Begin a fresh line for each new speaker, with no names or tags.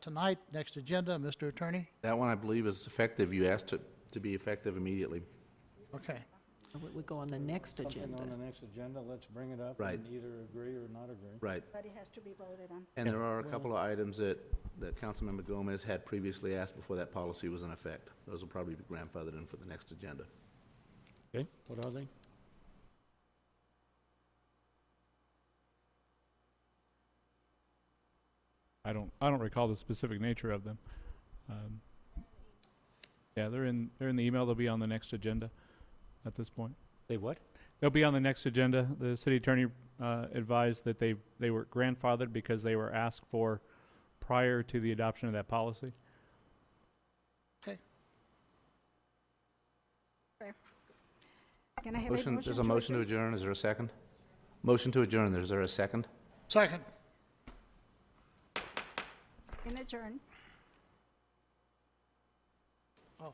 tonight. Next agenda, Mr. Attorney?
That one, I believe, is effective. You asked it to be effective immediately.
Okay.
It would go on the next
Something
agenda.
on the next agenda, let's bring it up
Right.
and either agree or not agree.
Right.
But it has to be voted on.
And there are a couple of items that, that Councilmember Gomez had previously asked before that policy was in effect. Those will probably be grandfathered in for the next agenda.
Okay, what are they?
I don't I don't recall the specific nature of them. Um, yeah, they're in they're in the email. They'll be on the next agenda. At this point,
They what?
they'll be on the next agenda. The city attorney uh, advised that they they were grandfathered because they were asked for prior to the adoption of that policy.
Can I have a motion?
Motion, there's a motion to adjourn. Is there a second? Motion to adjourn. Is there a second?
Second.
adjourn.
Oh,